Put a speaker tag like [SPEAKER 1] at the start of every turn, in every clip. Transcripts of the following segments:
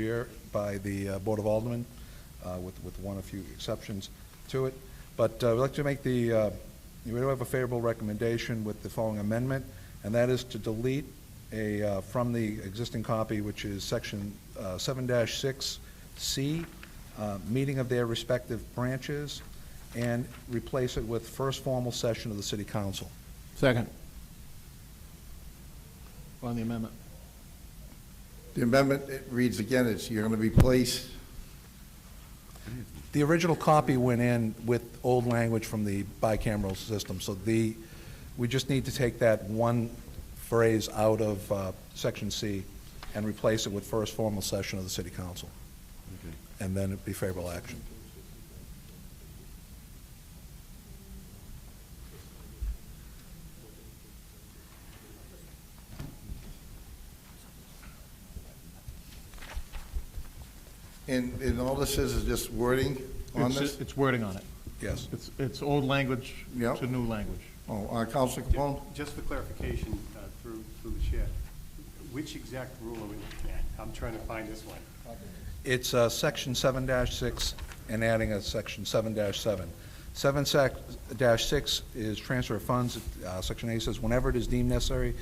[SPEAKER 1] year by the uh, Board of Aldermen, uh, with, with one or few exceptions to it. But uh, we'd like to make the, uh, we do have a favorable recommendation with the following amendment, and that is to delete a, uh, from the existing copy, which is section uh, seven six C, uh, meeting of their respective branches, and replace it with first formal session of the city council.
[SPEAKER 2] Second. On the amendment.
[SPEAKER 3] The amendment, it reads again, it's, you're going to replace,
[SPEAKER 1] The original copy went in with old language from the bicameral system, so the, we just need to take that one phrase out of uh, section C and replace it with first formal session of the city council. And then it'd be favorable action.
[SPEAKER 3] and, and all this is, is just wording on
[SPEAKER 2] It's-
[SPEAKER 3] this?
[SPEAKER 2] It's wording on it.
[SPEAKER 1] Yes.
[SPEAKER 2] It's, it's old language
[SPEAKER 3] Yep.
[SPEAKER 2] to new language.
[SPEAKER 3] Oh, uh, Counselor Capone?
[SPEAKER 4] Just for clarification, uh, through, through the chair, which exact rule are we looking at? I'm trying to find this one.
[SPEAKER 1] It's uh, section seven six and adding a section seven seven. Seven sec- dash six is transfer of funds. Uh, Section A says, whenever it is deemed necessary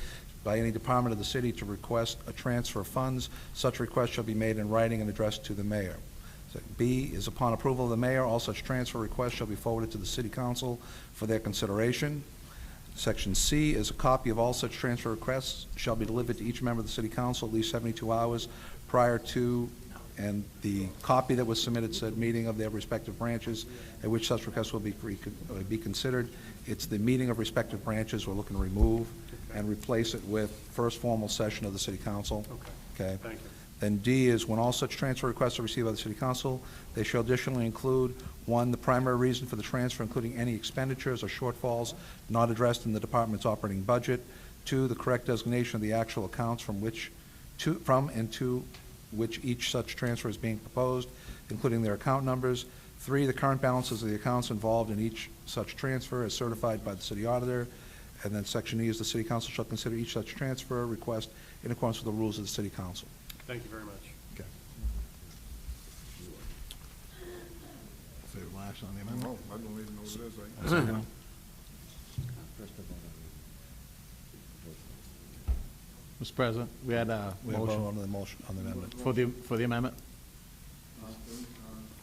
[SPEAKER 1] by any department of the city to request a transfer of funds, such request shall be made in writing and addressed to the mayor. So B is upon approval of the mayor, all such transfer requests shall be forwarded to the city council for their consideration. Section C is a copy of all such transfer requests shall be delivered to each member of the city council at least seventy-two hours prior to, and the copy that was submitted said meeting of their respective branches at which such requests will be, re- uh, be considered. It's the meeting of respective branches we're looking to remove and replace it with first formal session of the city council. Okay?
[SPEAKER 4] Thank you.
[SPEAKER 1] Then D is when all such transfer requests are received by the city council, they shall additionally include, one, the primary reason for the transfer, including any expenditures or shortfalls not addressed in the department's operating budget, two, the correct designation of the actual accounts from which, to, from and to which each such transfer is being proposed, including their account numbers, three, the current balances of the accounts involved in each such transfer as certified by the city auditor, and then section E is the city council shall consider each such transfer request in accordance with the rules of the city council.
[SPEAKER 4] Thank you very much.
[SPEAKER 2] Favorable action on the
[SPEAKER 3] I
[SPEAKER 2] amendment.
[SPEAKER 3] don't even know what it is.
[SPEAKER 2] Mr. President, we had a
[SPEAKER 1] We have a vote
[SPEAKER 2] motion
[SPEAKER 1] on the motion, on the amendment.
[SPEAKER 2] for the, for the amendment.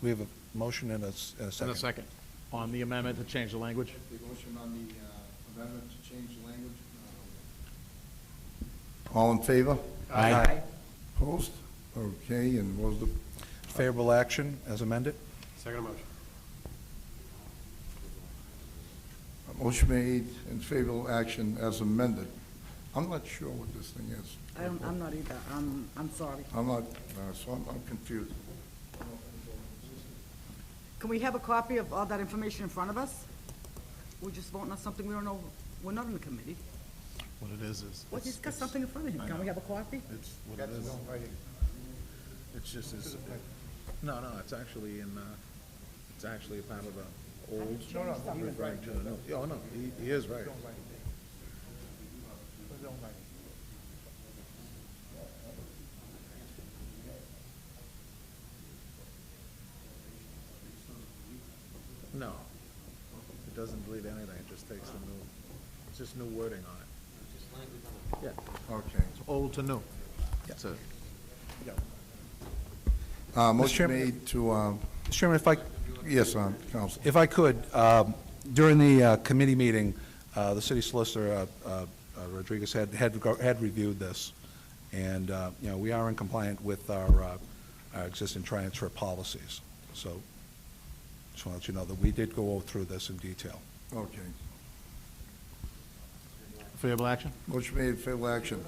[SPEAKER 1] We have a motion and a, s- and a second.
[SPEAKER 2] On the amendment to change the language.
[SPEAKER 3] The motion on the amendment to change the language. All in favor?
[SPEAKER 2] Aye.
[SPEAKER 3] Opposed? Okay, and what was the,
[SPEAKER 1] Favorable action as amended?
[SPEAKER 4] Second motion.
[SPEAKER 3] a motion made in favorable action as amended. I'm not sure what this thing is.
[SPEAKER 5] I don't, I'm not either, I'm, I'm sorry.
[SPEAKER 3] I'm not, uh, so I'm I'm confused.
[SPEAKER 5] Can we have a copy of all that information in front of us? We're just voting on something we don't know, we're not in the committee.
[SPEAKER 2] What it is, is.
[SPEAKER 5] Well, he's got something in front of him, can we have a copy?
[SPEAKER 2] It's what it is. It's just, it's,
[SPEAKER 6] No, no, it's actually in, uh, it's actually a part of a old.
[SPEAKER 5] No, no, he was
[SPEAKER 6] Referring to, no, yeah, oh, no, he, he is right. No, it doesn't delete anything, it just takes the new, it's just new wording on it. Yeah,
[SPEAKER 3] Okay.
[SPEAKER 2] old to new. That's it.
[SPEAKER 3] Uh, Motion
[SPEAKER 1] Chairman-
[SPEAKER 3] made to, um,
[SPEAKER 1] Mr. Chairman, if I,
[SPEAKER 3] yes, um, Counsel.
[SPEAKER 1] if I could, um, during the uh, committee meeting, uh, the city solicitor, uh, uh, Rodriguez, had, had go- had reviewed this, and, uh, you know, we are in compliant with our, uh, our existing transfer policies. So just want to let you know that we did go through this in detail.
[SPEAKER 3] Okay.
[SPEAKER 2] Favorable action?
[SPEAKER 3] Motion made in favorable action.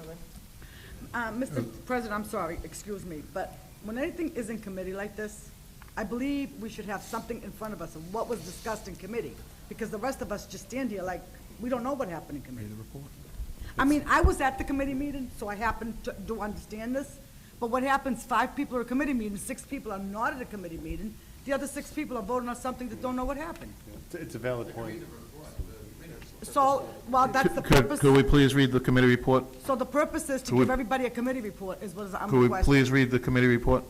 [SPEAKER 5] Uh, Mr. President, I'm sorry, excuse me, but when anything is in committee like this, I believe we should have something in front of us of what was discussed in committee, because the rest of us just stand here like, we don't know what happened in committee. I mean, I was at the committee meeting, so I happen to, to understand this, but what happens, five people are at a committee meeting, six people are not at a committee meeting, the other six people are voting on something that don't know what happened.
[SPEAKER 4] It's a valid point.
[SPEAKER 5] So, well, that's the
[SPEAKER 6] Could,
[SPEAKER 5] purpose.
[SPEAKER 6] could we please read the committee report?
[SPEAKER 5] So the purpose is to
[SPEAKER 6] Could we-
[SPEAKER 5] give everybody a committee report, is what I'm
[SPEAKER 6] Could
[SPEAKER 5] requesting.
[SPEAKER 6] we please read the committee report?